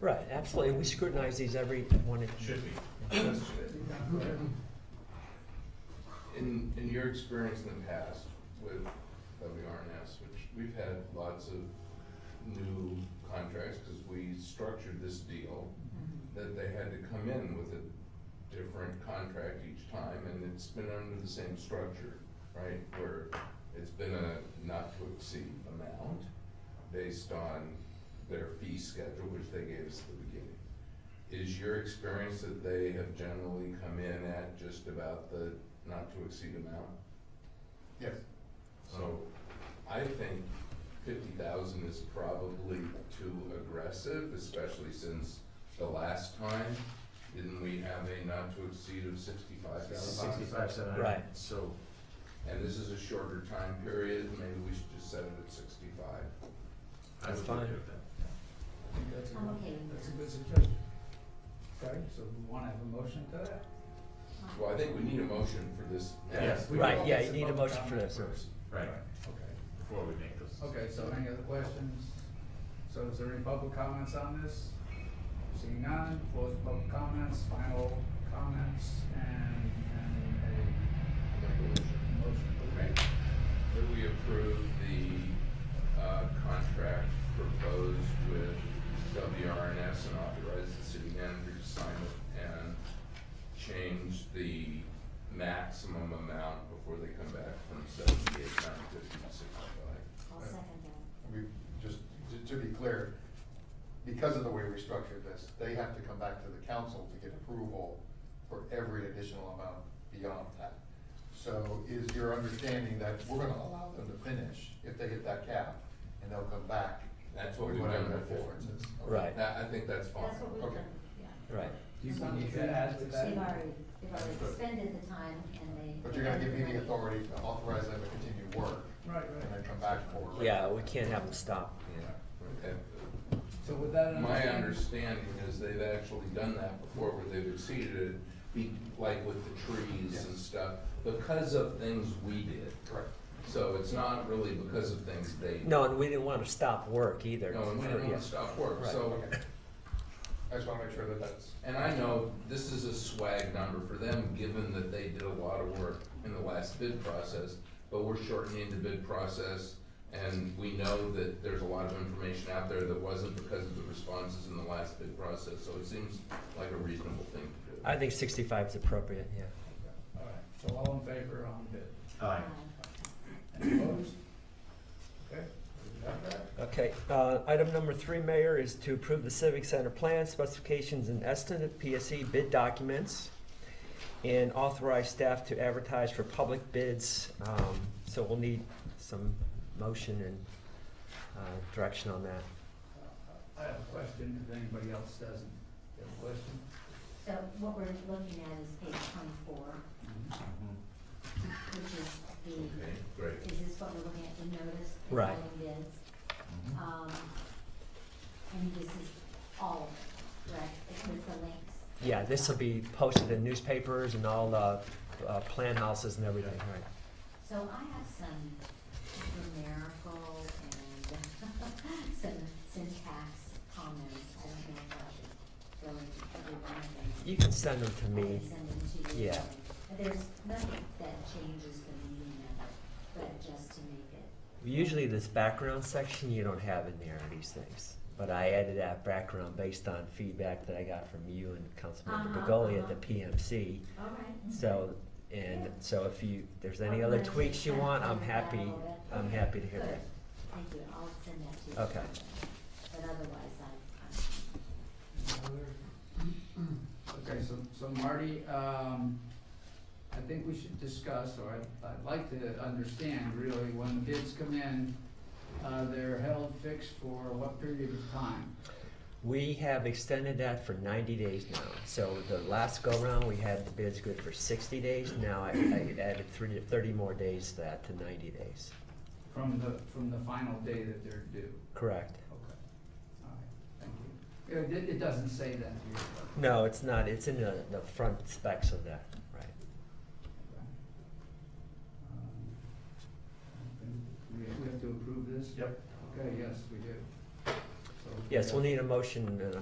Right, absolutely, and we scrutinize these every one. Should be. In, in your experience in the past with WRNS, which we've had lots of new contracts, because we structured this deal, that they had to come in with a different contract each time, and it's been under the same structure, right? Where it's been a not to exceed amount based on their fee schedule, which they gave us at the beginning. Is your experience that they have generally come in at just about the not to exceed amount? Yes. So I think fifty thousand is probably too aggressive, especially since the last time, didn't we have a not to exceed of sixty-five thousand? Sixty-five seven hundred. Right. So, And this is a shorter time period, maybe we should just set it at sixty-five. I would That's be fine. okay with that. I think that's a I'm good, okay with that's a that. good suggestion. Okay, so we wanna have a motion to that? Well, I think we need a motion for this. Yes. We Right, can yeah, focus you need a upon the motion for comments this. first. Right, Okay, before we make those. okay, so any other questions? So is there any public comments on this? Seeing none, close the public comments, final comments, and, and a motion for the rate. That we approve the uh, contract proposed with WRNS and authorize the city manager to sign it and change the maximum amount before they come back from seventy-eight, nine fifty to sixty-five. I'll second that. We, just, to- to be clear, because of the way we structured this, they have to come back to the council to get approval for every additional amount beyond that. So is your understanding that we're gonna allow them to finish if they hit that cap, and they'll come back? That's what with we've done whatever that before. difference is? Okay. Right. That, I think that's fine. That's what we've Okay. done, yeah. Right, Do you want to add to They've that? already, they've already expended the time and they. But you're gonna give me the authority to authorize them to continue work, Right, and right. then come back for. yeah, we can't have them stop. Okay. So with that My understanding, understanding is they've actually done that before, where they've exceeded it, be, like with the trees and stuff, because of things we did. Correct. So it's not really because of things they. No, and we didn't want to stop work either. No, and we don't Yeah. wanna stop work, Right. so, Okay. I just wanna make sure that that's. and I know this is a swag number for them, given that they did a lot of work in the last bid process, but we're shortening the bid process, and we know that there's a lot of information out there that wasn't because of the responses in the last bid process, so it seems like a reasonable thing to do. I think sixty-five is appropriate, yeah. all right, so all in favor on bid? Aye. Any opposed? Okay, we got that. Okay, uh, item number three, Mayor, is to approve the Civic Center plan specifications and estimate PSE bid documents and authorize staff to advertise for public bids. Um, so we'll need some motion and, uh, direction on that. uh, I have a question, if anybody else doesn't. You have a question? So what we're looking at is page twenty-four, which is the, Okay, great. is this what we're looking at, the notice? the Right. filing Bids, Mm-hmm. um, and this is all of it, correct, it's with the links. Yeah, this will be posted in newspapers and all, uh, uh, plan houses and everything, right? So I have some numerical and some syntax comments, I don't know if I should go into every one of them. You can send them to I me. can send them to you. Yeah. But there's nothing that changes the meaning of it, but just to make it, Usually this background section you don't have in there, these things. But I added that background based on feedback that I got from you and Councilmember Uh-huh, Begoli at the uh-huh. PMC. all right. So, and so if you, there's any I'll other let you tweaks you kind of want, I'm clean it up a happy, little bit. I'm Oh, Okay, happy to hear good. that. Thank you, I'll send that to you. Okay. But otherwise, I, Okay, so, so Marty, um, I think we should discuss, or I'd, I'd like to understand really, when the bids come in, uh, they're held fixed for what period of time? We have extended that for ninety days now. So the last go-round, we had the bids good for sixty days. Now I, I added three, thirty more days to that to ninety days. From the, from the final day that they're due? Correct. Okay, all right, thank you. Yeah, It, it doesn't say that here, but. No, it's not, it's in the, the front specs of that, right? Um, um, We we have to approve this? Yep. Okay, yes, we do. So- Yes, we'll need a motion uh, and a